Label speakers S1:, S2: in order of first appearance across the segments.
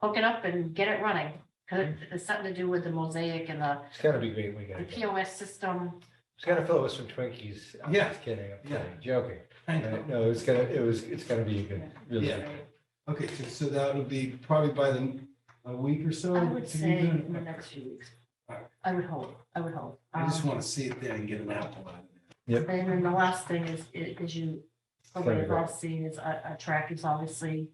S1: hook it up and get it running. Cause
S2: Mm.
S1: it's something to do with the mosaic and the
S3: It's gotta be great weekend. It's
S1: POS system.
S3: gotta fill us some Twinkies. I'm
S2: Yeah.
S3: just Kidding, I'm
S2: Yeah.
S3: kidding, joking.
S2: I know.
S3: No, it's gonna, it was, it's gonna be a good. really
S2: Yeah.
S3: good.
S2: Okay, so- so that would be probably by the, a week or so.
S1: I would
S2: to be
S1: say
S2: done?
S1: in the next few weeks.
S2: Alright.
S1: I would hope, I would hope.
S2: I just
S1: Um,
S2: want to see it there and get an apple out of it.
S1: And then the last thing is, i- is you, probably have all seen is uh, a, a track is obviously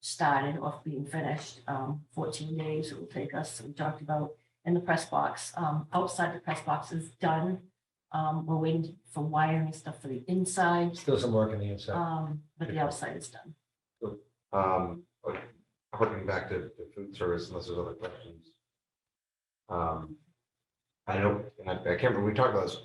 S1: started off being finished, um, fourteen days it will take us, we talked about in the press box, um, outside the press box is done. Um, we're waiting for wiring and stuff for the inside,
S3: Still some work on the inside.
S1: um, but the outside is done.
S4: Um, but harking back to the food service, unless there's other questions. Um, I know, and I, I can't remember, we talked about this,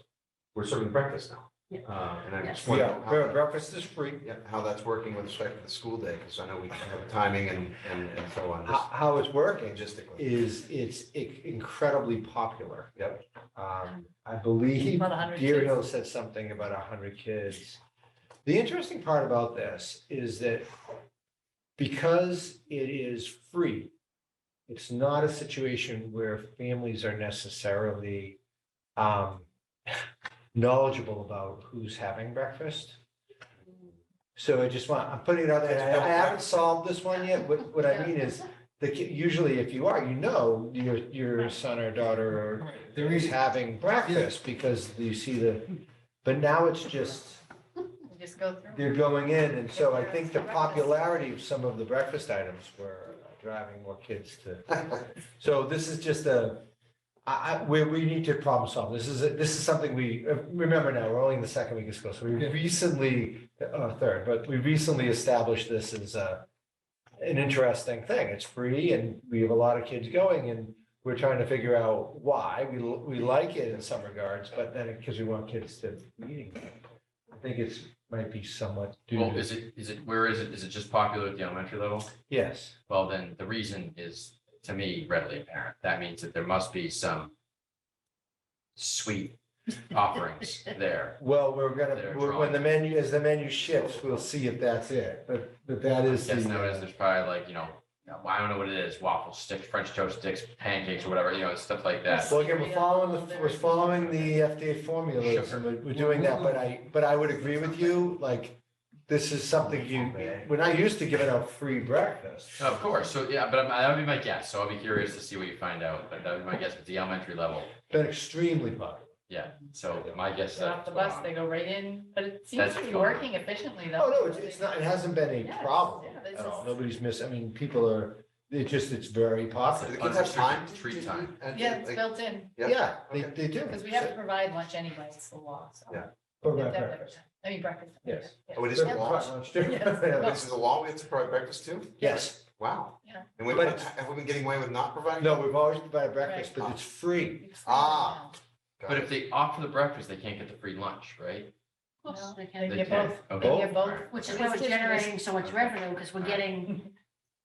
S4: we're serving breakfast now.
S1: Yeah.
S4: Uh, and I
S1: Yes.
S4: just wonder
S3: Yeah, bre-
S4: how,
S3: breakfast is free.
S4: yeah, how that's working with respect to the school day, because I know we have timing and, and, and so on,
S3: How, how it's working
S4: just logistically.
S3: is it's i- incredibly popular.
S4: Yep.
S3: Um, I believe
S1: About 100
S3: Deer
S1: kids.
S3: Hill said something about a hundred kids. The interesting part about this is that because it is free, it's not a situation where families are necessarily um, knowledgeable about who's having breakfast. So I just want, I'm putting it out there. I- I haven't solved this one yet. What, what I mean is the ki- usually if you are, you know, your, your son or daughter
S2: Right, There
S3: is
S2: is,
S3: having breakfast because you see the, but now it's just,
S5: Just go through.
S3: they're going in, and so I think the popularity of some of the breakfast items were uh, driving more kids to. So this is just a, I, I, we, we need to problem solve. This is, a- this is something we, uh, remember now, we're only in the second week of school, so we
S2: Yeah.
S3: recently, uh, third, but we recently established this as a, an interesting thing. It's free and we have a lot of kids going and we're trying to figure out why. We, l- we like it in some regards, but then because we want kids to be eating. it. I think it's, might be somewhat. due
S6: Well,
S3: to-
S6: is it, is it, where is it? Is it just popular at the elementary level?
S3: Yes,
S6: Well, then the reason is, to me, readily apparent. That means that there must be some sweet offerings there.
S3: well, we're gonna,
S6: They're
S3: we're- when the menu, as the menu shifts, we'll see if that's it, but, but that is. the,
S6: Yes, no,
S3: uh,
S6: there's probably like, you know, I don't know what it is, waffle sticks, French toast sticks, pancakes or whatever, you know, stuff like that.
S3: uh, Well, again, we're following, the- we're following the FDA formulas, and we're- we're doing that, but I, but I would agree with you, like, this is something you, we're not used to giving out free breakfast.
S6: Of course, so yeah, but I'm- that would be my guess. So I'll be curious to see what you find out, but that would be my guess at the elementary level.
S3: Been extremely popular.
S6: Yeah, so my guess. is
S5: Get off the
S6: that's
S5: bus,
S6: going
S5: they
S6: on.
S5: go right in, but it
S6: That's
S5: seems to be
S6: fine.
S5: working efficiently though.
S3: Oh, no, it's, it's not, it hasn't been a
S5: Yes,
S3: problem
S5: yeah, this
S3: at all,
S5: is-
S3: nobody's missed, I mean, people are, it just, it's very
S4: Do the
S3: popular.
S4: kids have time?
S6: Unrestricted treat time.
S4: And-
S5: Yeah, it's
S4: like-
S5: built in,
S3: Yeah, they,
S4: Okay.
S3: they do.
S5: because we have to provide lunch anyway, it's the law, so.
S4: Yeah.
S3: But
S5: We have
S3: right,
S5: to have
S3: right.
S5: breakfast. I mean, breakfast.
S3: Yes.
S5: Yeah.
S4: Oh, it is a
S5: Yeah.
S4: law?
S5: Yes.
S4: This is a law, we have to provide breakfast too?
S3: Yes,
S4: Wow.
S5: Yeah.
S4: And we,
S3: But it's-
S4: have we been getting away with not providing?
S3: no, we've always provided breakfast, but it's free.
S5: It's the
S4: Ah.
S5: law
S4: Got
S6: But
S4: it.
S6: if they opt for the breakfast, they can't get the free lunch, right?
S1: No, they
S5: They
S1: can-
S6: They
S5: get
S6: can.
S5: both,
S6: Okay.
S5: they get both.
S6: Alright.
S1: Which is why we're generating so much revenue, because we're getting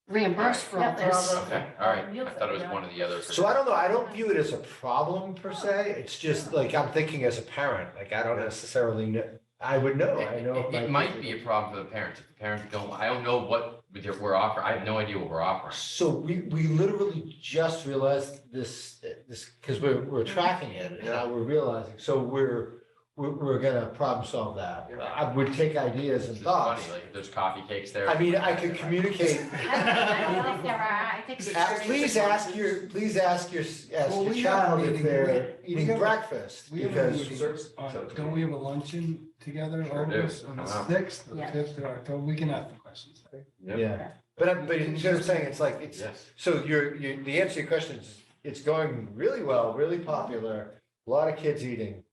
S1: reimbursed for all
S5: Yeah, there's-
S1: this.
S6: Okay, all right. I thought it was one or the other. for
S3: So I don't know, I don't view it as a problem per se, it's just like, I'm thinking as a parent, like, I don't necessarily know, I would know, I
S6: It-
S3: know.
S6: It
S3: if my
S6: it might
S3: kids-
S6: be a problem for the parents. If the parents don't, I don't know what with- we're offering. I have no idea what we're offering.
S3: So we, we literally just realized this, this, because we're, we're
S2: Mm-hmm.
S3: tracking it, and now we're realizing, so we're, we're, we're gonna problem solve that. I would take ideas and
S6: It's funny,
S3: thoughts,
S6: like if there's coffee cakes there.
S3: I mean, I could communicate,
S1: I don't think there are, I think.
S3: ask- please ask your, please ask your, ask
S2: Well,
S3: your
S2: we have a
S3: child if
S2: meeting,
S3: they're
S2: we- we
S3: eating
S2: have a-
S3: breakfast,
S2: we have a
S3: because.
S2: meeting on- uh, Don't we have a luncheon together,
S6: Sure do.
S2: August, on the
S6: Wow.
S2: sixth, or
S1: Yeah.
S2: fifth, or October, we can ask the questions.
S3: Yeah, but I'm, but you see what I'm saying, it's like, it's,
S6: Yes.
S3: so you're, you, the answer to your question is, it's going really well, really popular, a lot of kids eating.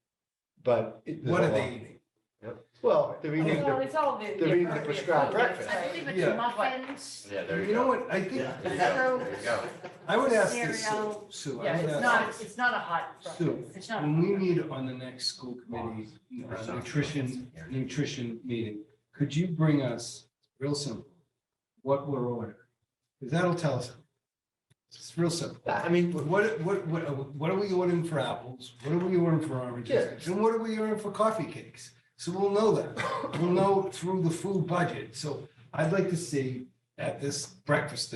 S3: But. it-
S2: What are they eating?
S3: Well, they're eating,
S5: Well,
S3: the-
S5: it's all the.
S3: they're eating the
S5: appropriate
S3: prescribed
S5: food, that's
S3: breakfast.
S1: I
S5: right.
S1: believe it's
S2: Yeah.
S1: muffins.
S6: Yeah, there you go.
S2: You know what, I think,
S3: Yeah.
S6: There you go.
S1: So-
S6: There you go.
S2: I would ask this,
S1: Cereal.
S2: Sue. I
S5: Yeah,
S2: would
S5: it's
S2: ask
S5: not,
S2: this.
S5: it's not a hot.
S2: Sue,
S1: It's not.
S2: when we meet on the next school committee uh, nutrition, nutrition meeting, could you bring us, real simple, what we're ordering? Because that'll tell us. It's real simple.
S3: I mean,
S2: What, what, what, what- what are we ordering for apples? What are we ordering for oranges?
S3: Yeah.
S2: And what are we ordering for coffee cakes? So we'll know that. We'll know through the food budget. So I'd like to see at this breakfast